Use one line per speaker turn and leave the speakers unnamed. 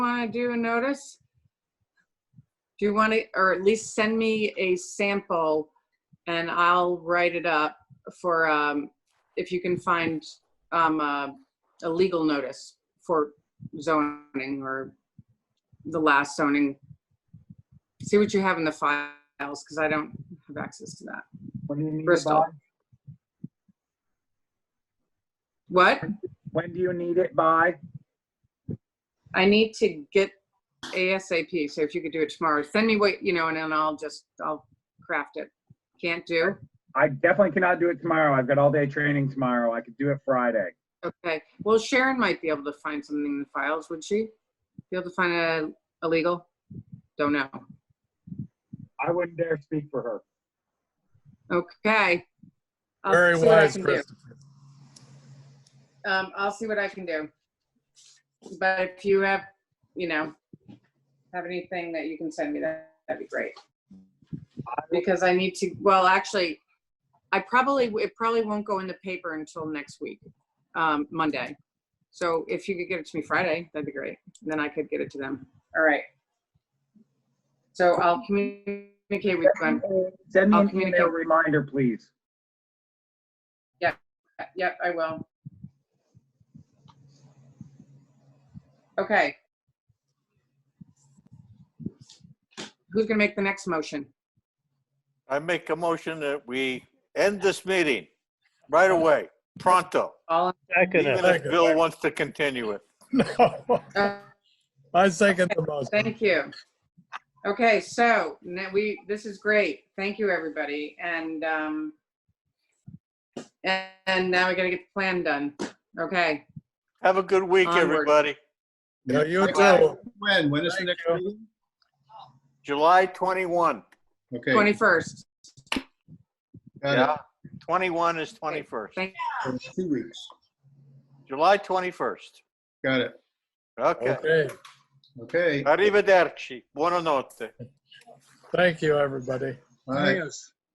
want to do a notice? Do you want to, or at least send me a sample and I'll write it up for, um, if you can find, um, a, a legal notice for zoning or the last zoning. See what you have in the files, because I don't have access to that.
What do you need it
Bristol.
by?
What?
When do you need it by?
I need to get ASAP, so if you could do it tomorrow, send me what, you know, and then I'll just, I'll craft it. Can't do?
I definitely cannot do it tomorrow. I've got all day training tomorrow. I could do it Friday.
Okay, well Sharon might be able to find something in the files, would she? Be able to find a illegal? Don't know.
I wouldn't dare speak for her.
Okay. I'll
Very
see what I
wise,
can do.
Christopher.
Um, I'll see what I can do. But if you have, you know, have anything that you can send me, that, that'd be great. Because I need to, well, actually, I probably, it probably won't go in the paper until next week, um, Monday. So if you could get it to me Friday, that'd be great. Then I could get it to them. All right. So I'll communicate with Glenn.
Send me
I'll
an email
communicate.
reminder, please.
Uh, Yep, I will. Okay. Who's gonna make the next motion?
I make a motion that we end this meeting right away, pronto.
All,
Second
Even
it.
if Bill wants to continue it.
uh,
I second the motion.
thank you. Okay, so now we, this is great. Thank you, everybody. And, um, and and now we gotta get the plan done. Okay,
Have a good week,
Onward.
everybody.
Yeah, you
Bye.
too.
When, when is the
Thank
next
you.
meeting?
July 21.
Okay.
21st.
got it.
Yeah, 21 is 21st.
Thank-
Two weeks.
July 21st.
Got it.
Okay.
Okay,
Okay.
Arrivederci. Buonanotte.
thank you, everybody.
All right.
Yes.